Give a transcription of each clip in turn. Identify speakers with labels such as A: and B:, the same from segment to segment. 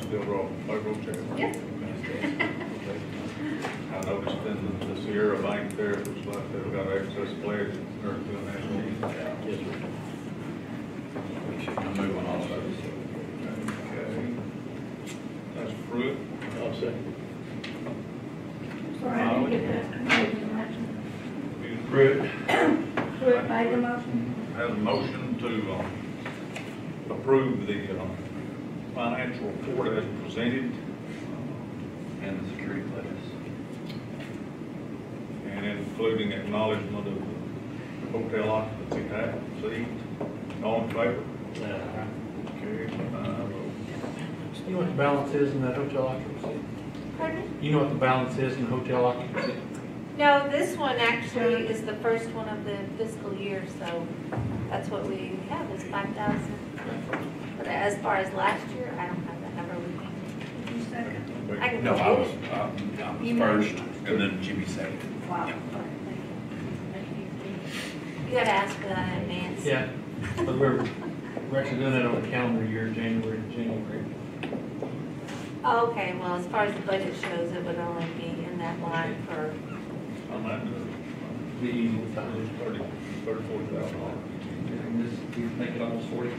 A: still roll, play roll check?
B: Yep.
A: Okay. I noticed in the Sierra Bank there, it looks like they've got excess pledge, or doing that.
C: Yes, sir. We should move on also.
A: Okay. That's fruit.
C: I'll second.
D: Sorry, I didn't get that. I didn't get that.
A: Fruit.
D: Who made the motion?
A: Have a motion to, um, approve the, um, financial report as presented,
C: And the security pledges.
A: and including acknowledgement of the hotel occupancy tax received. All in favor? Carried five oh.
E: You know what the balance is in that hotel occupancy?
B: Pardon?
E: You know what the balance is in hotel occupancy?
B: No, this one actually is the first one of the fiscal year, so that's what we have is five thousand. But as far as last year, I don't have that number with me.
D: Did you second?
B: I can
C: No, I
B: get
C: was,
B: it.
C: um, I was
D: You
C: first, and then Jimmy second.
D: Wow.
B: You gotta ask for that in advance.
E: Yeah, but we're, we're actually doing it on the calendar year, January to January.
B: Oh, Okay, well, as far as the budget shows, it would only be in that line for,
A: I'm at the,
E: The easy
A: uh,
E: time.
A: thirty, thirty-four thousand dollars.
C: And this, we make it almost forty.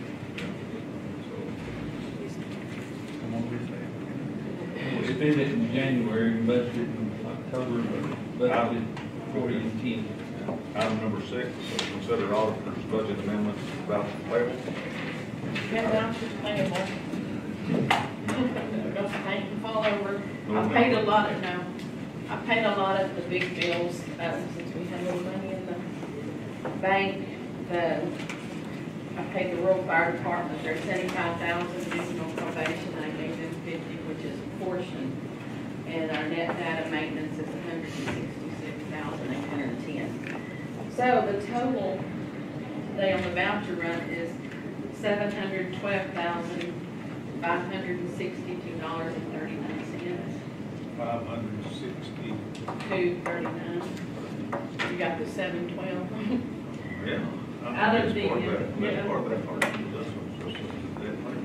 C: Come on, please,
F: We spend it in January and budget it in October, but budget forty and ten.
A: Item number six, consider auditor's budget amendments about the payable.
G: Yeah, I'm fall over. I paid a lot of, no, I paid a lot of the big bills, um, since we had little money in the bank, the, I paid the rural fire department, their seventy-five thousand additional probation, I gave them fifty, which is a portion. And our net data maintenance is hundred and sixty-six thousand eight hundred and ten. So the total today on the voucher run is seven hundred twelve thousand, five hundred and sixty-two dollars and thirty-nine cents
A: Five hundred sixty,
G: to thirty-nine. You got the seven twelve.
A: yeah.
G: Out of the,
A: Part of that-
G: yeah.
A: Part of that part, this one's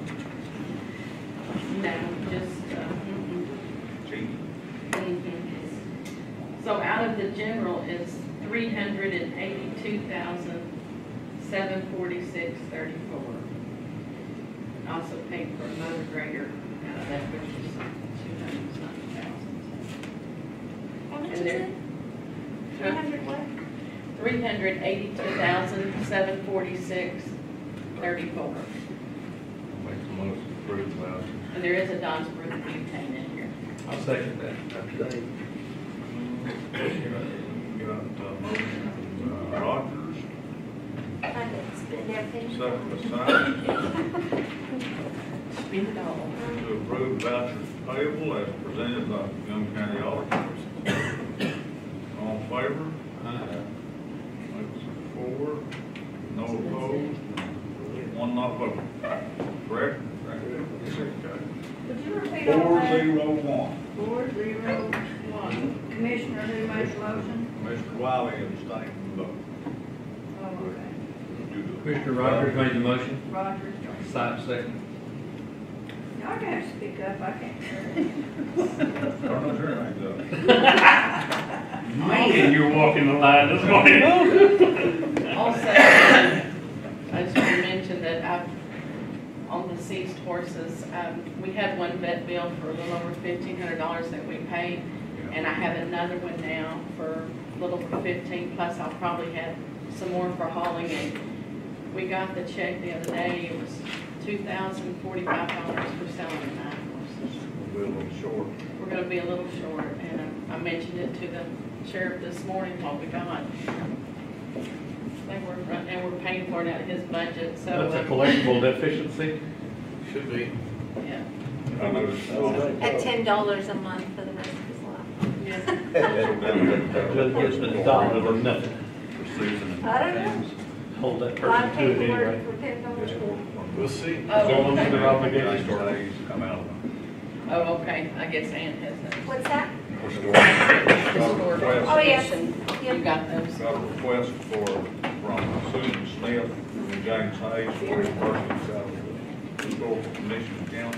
A: just, that
G: No, just, uh, mm-mm,
A: part, cheap.
G: mm-mm. So out of the general is three hundred and eighty-two thousand, seven forty-six thirty-four. Also paid for motor grader out of that, which is two hundred and something thousand.
B: how much is
G: And there-
B: it? Three hundred what?
G: Three hundred eighty-two thousand, seven forty-six, thirty-four.
A: Make the motion to approve about.
G: And there is a Donsbrook butane in here.
E: I'll second that.
A: Got a motion, uh, Rogers,
B: I didn't spend everything.
A: second by Simon,
G: Spin it all.
A: to approve vouchers payable as presented by Young County Auditors. All in favor?
E: Uh,
A: That's four, no opposed, one not voting, correct?
D: Would you repeat all
A: Four
D: that?
A: zero one.
D: Four, zero, one. Commissioner, who made the motion?
A: Mr. Wiley abstained from voting.
D: Oh, okay.
F: Commissioner Rogers made the motion,
D: Rogers.
F: Sipes second.
D: Y'all can have to speak up, I can't hear.
A: I don't know, sure, I think so.
H: Man, you're walking the line this morning.
G: Also, I just want to mention that I've, on the seized horses, um, we had one vet bill for a little over fifteen hundred dollars that we paid. And I have another one now for a little over fifteen, plus I'll probably have some more for hauling. And we got the check the other day, it was two thousand forty-five dollars for selling nine horses.
A: We're a little short.
G: We're gonna be a little short, and I I mentioned it to the sheriff this morning while we got. They were, run- and we're paying for it out of his budget, so.
E: That's a
G: uh,
E: collectible deficiency.
C: Should be.
G: Yeah,
A: I noticed. that.
B: At ten dollars a month for the rest of his life.
G: yeah.
E: Doesn't get us a dollar or nothing.
C: For Susan and.
B: I don't know.
E: Hold that
B: Well, I
E: person to
B: paid
E: it
B: for
E: anyway.
B: it for ten dollars.
A: It's four.
C: We'll see.
E: As
G: Oh,
E: long as they're obligated.
A: Days come out of them.
G: oh, okay, I guess Ann has that.
B: What's that?
A: We're short.
G: Historic.
B: Oh, yes.
G: You
B: Yep.
G: got those.
A: Got a request for, from Susan Smith and James Hayes for a person out of the historical commission council